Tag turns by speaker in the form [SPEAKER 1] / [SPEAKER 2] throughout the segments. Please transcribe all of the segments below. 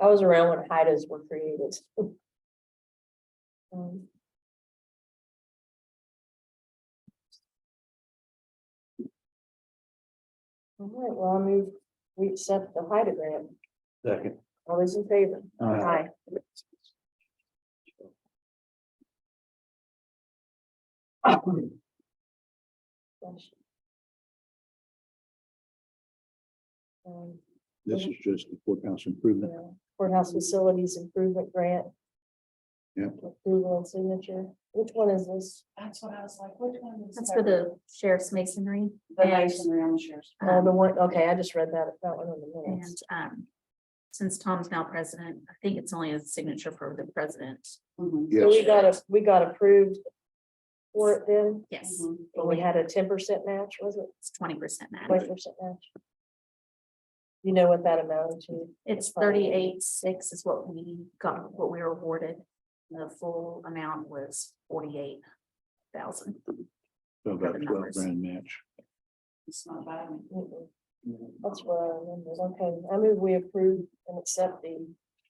[SPEAKER 1] I was around when HIDAs were created. Um, All right, well, I move, we accept the HIDA grant.
[SPEAKER 2] Second.
[SPEAKER 1] All those in favor?
[SPEAKER 2] Aye.
[SPEAKER 1] Gosh. Um,
[SPEAKER 2] This is just the courthouse improvement.
[SPEAKER 1] yeah, Courthouse Facilities Improvement Grant.
[SPEAKER 2] Yeah.
[SPEAKER 1] Approval and signature. Which one is this?
[SPEAKER 3] That's what I was like, which one is?
[SPEAKER 4] That's for the sheriff's masonry.
[SPEAKER 3] The
[SPEAKER 4] and,
[SPEAKER 3] masonry on the sheriff's.
[SPEAKER 1] Oh,
[SPEAKER 4] um,
[SPEAKER 1] the one, okay, I just read that, that one in the
[SPEAKER 4] And
[SPEAKER 1] minutes.
[SPEAKER 4] um, since Tom's now president, I think it's only a signature for the president.
[SPEAKER 3] Mhm,
[SPEAKER 1] So we
[SPEAKER 2] Yes,
[SPEAKER 1] got, a- we got approved for it then,
[SPEAKER 4] Yes,
[SPEAKER 2] Mm-hmm.
[SPEAKER 3] mhm.
[SPEAKER 1] but we had a ten percent match, was it?
[SPEAKER 4] it's twenty percent match.
[SPEAKER 1] Twenty percent match? You know what that amounted to?
[SPEAKER 4] It's thirty-eight, six is what we got, what we were awarded. The full amount was forty-eight thousand.
[SPEAKER 2] so about
[SPEAKER 4] the
[SPEAKER 2] twelve
[SPEAKER 4] numbers.
[SPEAKER 2] grand match.
[SPEAKER 3] It's not bad.
[SPEAKER 1] Mm-mm, That's what I remember. Okay, I move we approve and accept the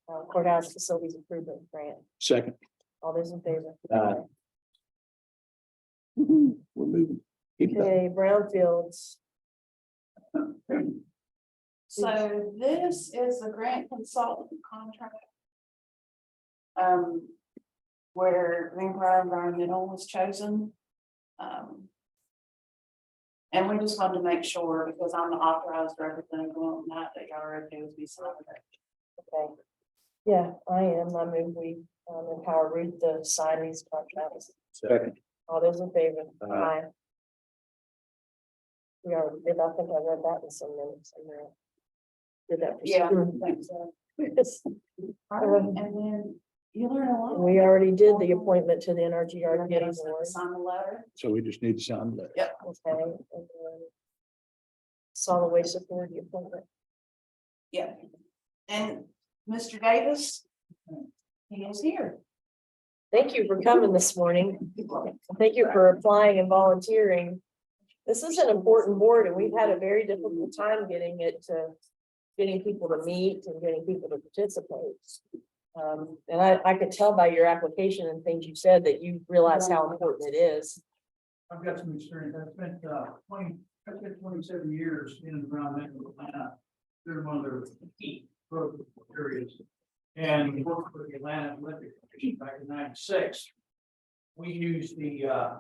[SPEAKER 1] uh, courthouse facilities improvement grant.
[SPEAKER 2] Second,
[SPEAKER 1] All those in favor?
[SPEAKER 2] Aye. Woo-hoo, we're moving. Keep it up.
[SPEAKER 1] Okay, brownfields.
[SPEAKER 3] So this is the grant consultant contract. Um, where Vancouver Environmental was chosen. Um. And we just wanted to make sure, because I'm the authorized representative on that, that y'all are okay with me signing it.
[SPEAKER 1] Okay. Yeah, I am. I move we um, empower Ruth to sign these contracts.
[SPEAKER 2] Second.
[SPEAKER 1] All those in favor?
[SPEAKER 2] Aye.
[SPEAKER 1] We are, did I think I read that in some minutes? I know. Did that. for
[SPEAKER 3] Yeah.
[SPEAKER 1] sure.
[SPEAKER 3] Thanks, uh,
[SPEAKER 1] Yes,
[SPEAKER 3] And then you learn a lot.
[SPEAKER 1] We already did the appointment to the NRGR
[SPEAKER 3] Everybody
[SPEAKER 1] Getty
[SPEAKER 3] has to
[SPEAKER 1] Board.
[SPEAKER 3] Sign the letter.
[SPEAKER 2] So we just need to sign that.
[SPEAKER 1] Okay. and then Solid waste authority appointment.
[SPEAKER 3] Yeah. And Mr. Davis, he is here.
[SPEAKER 1] Thank you for coming this morning. Thank you for applying and volunteering. This is an important board and we've had a very difficult time getting it to, getting people to meet and getting people to participate. Um, and I, I could tell by your application and things you said that you realize how important it is.
[SPEAKER 5] I've got some experience. I've spent uh twenty, I've spent twenty-seven years in and around Metro Atlanta. They're one of their key growth areas. And worked for the Atlanta Olympic Commission back in ninety-six. We used the uh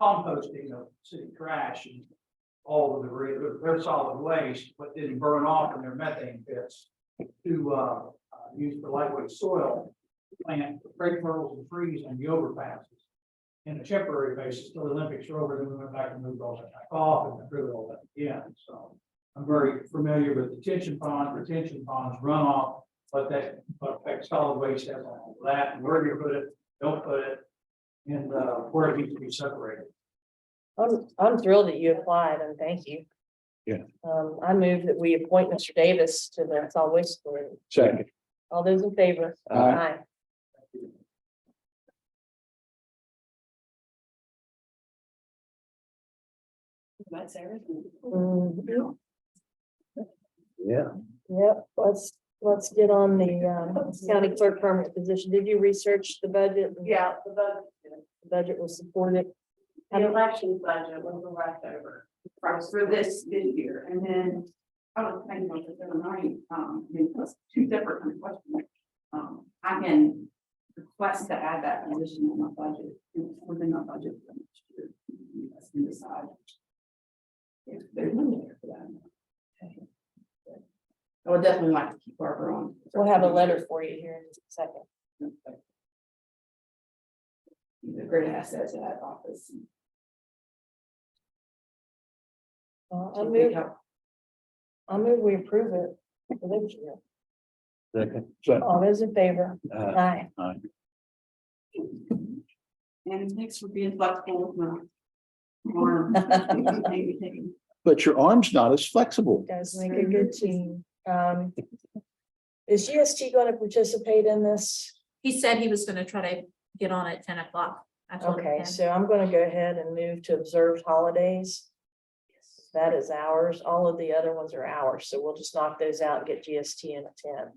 [SPEAKER 5] composting of city trash and all of the, re- their solid waste, but didn't burn off in their methane pits to uh uh, use for lightweight soil, plant great myrtles and trees on the overpasses in a temporary basis till the Olympics are over, then we went back and moved all that back off and threw it all that again, so. I'm very familiar with detention ponds, retention ponds, runoff, but that, but that solid waste has all that, where you put it, don't put it. And, uh, where it needs to be separated.
[SPEAKER 1] I'm, I'm thrilled that you applied and thank you.
[SPEAKER 2] Yeah.
[SPEAKER 1] Um, I move that we appoint Mr. Davis to the solid waste authority.
[SPEAKER 2] Second.
[SPEAKER 1] All those in favor?
[SPEAKER 2] Aye.
[SPEAKER 3] That's everything.
[SPEAKER 1] Mm,
[SPEAKER 2] Yeah.
[SPEAKER 1] Yep, let's, let's get on the um, county clerk permanent position. Did you research the budget?
[SPEAKER 3] Yeah, the budget,
[SPEAKER 1] The Budget was supported.
[SPEAKER 3] the election budget was the leftover for for this this year, and then. oh, I was thinking about this other night, um, I mean, that's two separate kind of questions. Um, I can request to add that position in my budget, within my budget for next year. You guys can decide. If there's money there for that. I would definitely like to keep Barbara on.
[SPEAKER 1] We'll have a letter for you here in just a second.
[SPEAKER 3] He's a great asset to that office.
[SPEAKER 1] Uh, I move, I move we approve it. for this year.
[SPEAKER 2] Second. So,
[SPEAKER 1] All those in favor?
[SPEAKER 2] uh,
[SPEAKER 1] Aye.
[SPEAKER 2] aye.
[SPEAKER 3] And thanks for being flexible with my. arm. Maybe taking-
[SPEAKER 2] But your arm's not as flexible.
[SPEAKER 1] Guys, make a good team. Um, is GST going to participate in this?
[SPEAKER 4] He said he was gonna try to get on at ten o'clock. I told him
[SPEAKER 1] Okay,
[SPEAKER 4] that.
[SPEAKER 1] so I'm gonna go ahead and move to observed holidays. That is ours. All of the other ones are ours, so we'll just knock those out and get GST in at ten.